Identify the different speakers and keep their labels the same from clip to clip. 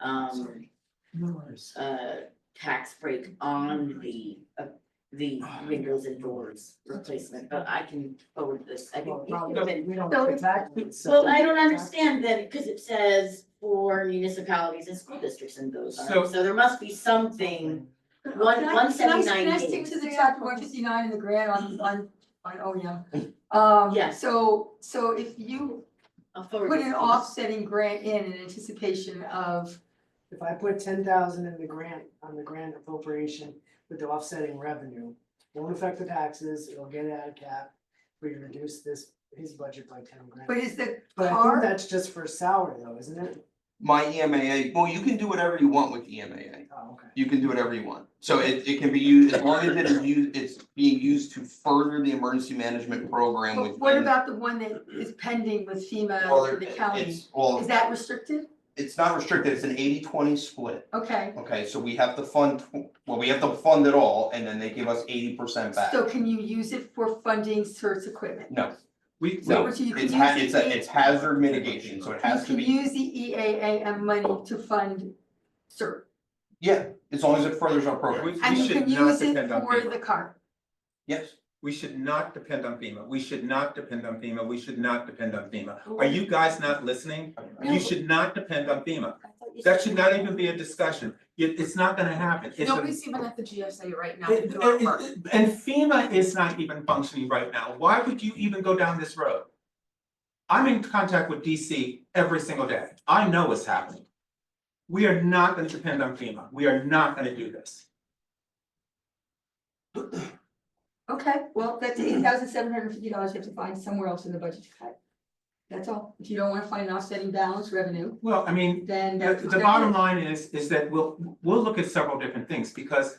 Speaker 1: um, uh, tax break on the, uh, the windows and doors replacement, but I can forward this, I can. Well, I don't understand then, because it says for municipalities and school districts and those
Speaker 2: So-
Speaker 1: are, so there must be something. One,
Speaker 3: Can I-
Speaker 1: one
Speaker 3: can I-
Speaker 1: seventy-nine Mm-hmm.
Speaker 3: Can I stick to the chapter one fifty-nine in the grant on, on, on OEM? Um,
Speaker 1: Yes.
Speaker 3: So, so if you
Speaker 1: I'll forward
Speaker 3: put
Speaker 1: this
Speaker 3: an
Speaker 1: to you.
Speaker 3: offsetting grant in in anticipation of,
Speaker 4: If I put ten thousand in the grant, on the grant appropriation with the offsetting revenue, won't affect the taxes, it'll get it out of cap. We reduce this, his budget by ten
Speaker 3: but
Speaker 4: grand,
Speaker 3: is the
Speaker 4: but I think
Speaker 3: car,
Speaker 4: that's just for salary though, isn't it?
Speaker 2: My E EMAA, well, you can do whatever you want with E EMAA,
Speaker 4: Oh, okay.
Speaker 2: you can do whatever you want. So it, it can be used, as long as it is used, it's being used to further the emergency management program
Speaker 3: but
Speaker 2: with.
Speaker 3: what about the one that is pending with FEMA
Speaker 2: Well,
Speaker 3: for
Speaker 2: there-
Speaker 3: the county?
Speaker 2: it's, well,
Speaker 3: Is that restricted?
Speaker 2: it's not restricted, it's an 80-20 split,
Speaker 3: Okay,
Speaker 2: okay, so we have to fund, tw- well, we have to fund it all, and then they give us eighty percent back.
Speaker 3: so can you use it for funding search equipment?
Speaker 2: No,
Speaker 5: We,
Speaker 3: So
Speaker 2: no,
Speaker 3: you can
Speaker 2: it's ha-
Speaker 3: use
Speaker 2: it's
Speaker 3: the
Speaker 2: a,
Speaker 3: E-
Speaker 2: it's hazard mitigation, so it has to
Speaker 3: You can
Speaker 2: be,
Speaker 3: use the E EAAM money to fund cert,
Speaker 2: yeah, as long as it furthers our program,
Speaker 5: We-
Speaker 3: and you
Speaker 5: should
Speaker 3: can
Speaker 5: not
Speaker 3: use it
Speaker 5: depend on
Speaker 3: for
Speaker 5: FEMA.
Speaker 3: the car.
Speaker 2: yes.
Speaker 5: we should not depend on FEMA, we should not depend on FEMA, we should not depend on FEMA. Are you guys not listening?
Speaker 3: No.
Speaker 5: You should not depend on FEMA. That should not even be a discussion. It- it's not gonna happen. It's a-
Speaker 6: Nobody's even at the GSA right now to
Speaker 5: It-
Speaker 6: do our
Speaker 5: it-
Speaker 6: part.
Speaker 5: it- And FEMA is not even functioning right now. Why would you even go down this road? I'm in contact with DC every single day. I know what's happening. We are not gonna depend on FEMA. We are not gonna do this.
Speaker 3: Okay, well, that's eight thousand seven hundred and fifty dollars you have to find somewhere else in the budget to cut. That's all. If you don't wanna find an offsetting balance revenue,
Speaker 5: Well, I mean,
Speaker 3: then
Speaker 5: The
Speaker 3: that's.
Speaker 5: the bottom line is, is that we'll, we'll look at several different things, because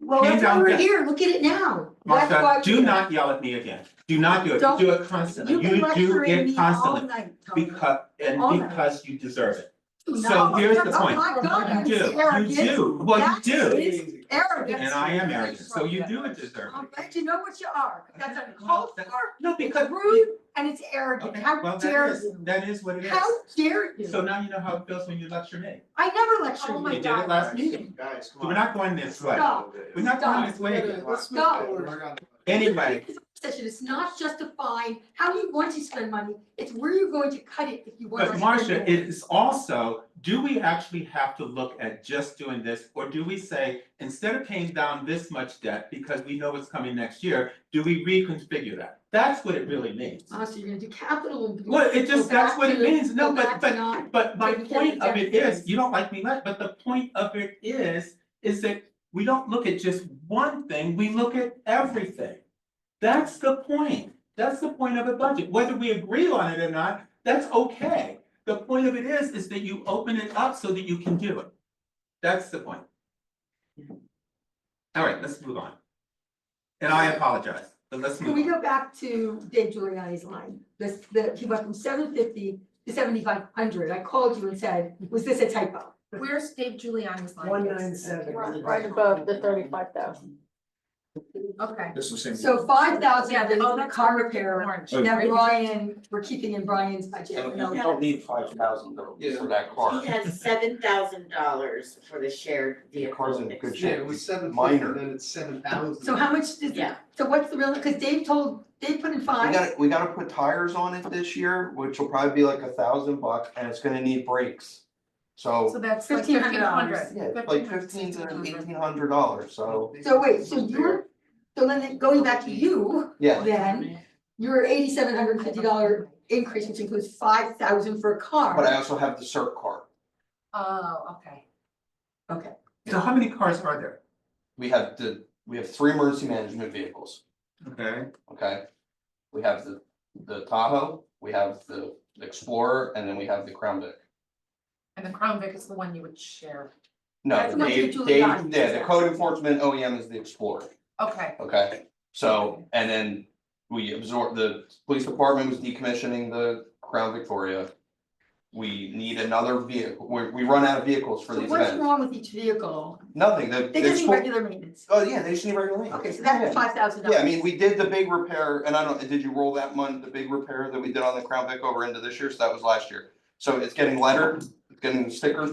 Speaker 3: Well, that's why
Speaker 5: handout
Speaker 3: we're
Speaker 5: that-
Speaker 3: here. Look at it now. That's why
Speaker 5: Martha,
Speaker 3: we're
Speaker 5: do
Speaker 3: here.
Speaker 5: not yell at me again. Do not do it,
Speaker 3: Don't-
Speaker 5: you do it constantly,
Speaker 3: You've been
Speaker 5: you do
Speaker 3: lecturing
Speaker 5: it
Speaker 3: me all
Speaker 5: constantly,
Speaker 3: night, Tony.
Speaker 5: because, and
Speaker 3: All night.
Speaker 5: because you deserve it.
Speaker 3: Do
Speaker 5: so
Speaker 3: not-
Speaker 5: here's the
Speaker 3: Oh
Speaker 5: point.
Speaker 3: my God,
Speaker 5: You
Speaker 3: that's
Speaker 5: do, you
Speaker 3: arrogant.
Speaker 5: do, well,
Speaker 3: That
Speaker 5: you do,
Speaker 3: is arrogant.
Speaker 5: and I am arrogant, so you do it deserve
Speaker 3: I'm
Speaker 5: it.
Speaker 3: glad you know what you are. That's uncalled
Speaker 5: That-
Speaker 3: for.
Speaker 5: No,
Speaker 3: It's
Speaker 5: because.
Speaker 3: rude and it's arrogant.
Speaker 5: Okay,
Speaker 3: How
Speaker 5: well,
Speaker 3: dare
Speaker 5: that is,
Speaker 3: you?
Speaker 5: that is what it
Speaker 3: How
Speaker 5: is,
Speaker 3: dare you?
Speaker 5: so now you know how it feels when you lecture me,
Speaker 3: I never lecture you.
Speaker 6: Oh my
Speaker 5: you did it last meeting,
Speaker 7: Guys,
Speaker 5: so we're not going this way,
Speaker 3: Stop.
Speaker 5: we're not going
Speaker 3: Stop.
Speaker 5: this way again.
Speaker 3: Stop.
Speaker 5: Anyway,
Speaker 3: Session, it's not justifying how you want to spend money, it's where you're going to cut it if you want.
Speaker 5: But
Speaker 3: us to
Speaker 5: Marcia,
Speaker 3: spend
Speaker 5: it is also, do we actually have to look at just doing this, or do we say, instead of paying down this much debt, because we know it's coming next year, do we reconfigure that? That's what it really means.
Speaker 3: more. Oh, so you're gonna do capital and.
Speaker 5: Well, it
Speaker 3: go
Speaker 5: just, that's
Speaker 3: back
Speaker 5: what it
Speaker 3: to-
Speaker 5: means, no,
Speaker 3: go back
Speaker 5: but
Speaker 3: to
Speaker 5: but
Speaker 3: not-
Speaker 5: but my
Speaker 3: but you can't
Speaker 5: point of it
Speaker 3: exactly-
Speaker 5: is, you don't like me less, but the point of it is, is that we don't look at just one thing, we look at everything. That's the point, that's the point of a budget, whether we agree on it or not, that's okay. The point of it is, is that you open it up so that you can do it. That's the point. All right, let's move on. And I apologize, but let's move
Speaker 3: Can
Speaker 5: on.
Speaker 3: we go back to Dave Giuliani's line, this, the, he went from seven fifty to seventy-five hundred, I called you and said, was this a typo?
Speaker 6: Where's Dave Giuliani's line?
Speaker 4: One nine seven.
Speaker 8: Right above the thirty-five thousand.
Speaker 6: Okay.
Speaker 7: This was.
Speaker 3: So five thousand
Speaker 6: Yeah,
Speaker 3: of it
Speaker 6: oh,
Speaker 3: is
Speaker 6: that's
Speaker 3: car repair,
Speaker 5: Oh,
Speaker 6: Orange.
Speaker 3: now
Speaker 6: right?
Speaker 3: Brian, we're keeping in Brian's budget,
Speaker 2: And
Speaker 3: no,
Speaker 2: we don't need five thousand for that car,
Speaker 1: He has seven thousand dollars for the shared
Speaker 2: the
Speaker 1: vehicle.
Speaker 2: car's in
Speaker 1: fix.
Speaker 2: good
Speaker 7: Yeah,
Speaker 2: shape,
Speaker 7: it was seven fifty,
Speaker 2: minor.
Speaker 7: then it's seven thousand.
Speaker 3: so how much does,
Speaker 1: Yeah.
Speaker 3: so what's the real, cause Dave told, Dave put in
Speaker 2: We
Speaker 3: five,
Speaker 2: gotta, we gotta put tires on it this year, which will probably be like a thousand bucks, and it's gonna need brakes. So,
Speaker 6: So that's like fifteen
Speaker 3: $1,500.
Speaker 6: hundred.
Speaker 2: yeah, it's like fifteen to eighteen hundred dollars, so,
Speaker 3: so wait, so you're, so then going back to you,
Speaker 2: yeah.
Speaker 3: then, your eighty-seven hundred and fifty dollar increase, which includes five thousand for a car.
Speaker 2: But I also have the CERT card,
Speaker 6: Oh, okay.
Speaker 5: So how many cars are there?
Speaker 2: we have the, we have three emergency management vehicles,
Speaker 5: Okay,
Speaker 2: okay? We have the, the Tahoe, we have the Explorer, and then we have the Crown Vic.
Speaker 6: And the Crown Vic is the one you would share.
Speaker 2: No,
Speaker 3: That's
Speaker 2: the
Speaker 3: not
Speaker 2: Dave,
Speaker 3: the
Speaker 2: Dave,
Speaker 3: Giuliani,
Speaker 2: yeah,
Speaker 3: is
Speaker 2: the
Speaker 3: it?
Speaker 2: code enforcement OEM is the Explorer.
Speaker 6: Okay,
Speaker 2: Okay, so, and then we absorb, the police department was decommissioning the Crown Victoria. We need another vehicle, we, we run out of vehicles for
Speaker 3: So
Speaker 2: these
Speaker 3: what's
Speaker 2: events,
Speaker 3: wrong with each vehicle?
Speaker 2: nothing, the, the
Speaker 3: They just need
Speaker 2: school,
Speaker 3: regular maintenance.
Speaker 2: oh, yeah, they just need regular maintenance.
Speaker 3: Okay, so that's five thousand
Speaker 2: Yeah,
Speaker 3: dollars.
Speaker 2: I mean, we did the big repair, and I don't, did you roll that month, the big repair that we did on the Crown Vic over into this year, so that was last year. So it's getting lighter, it's getting thicker,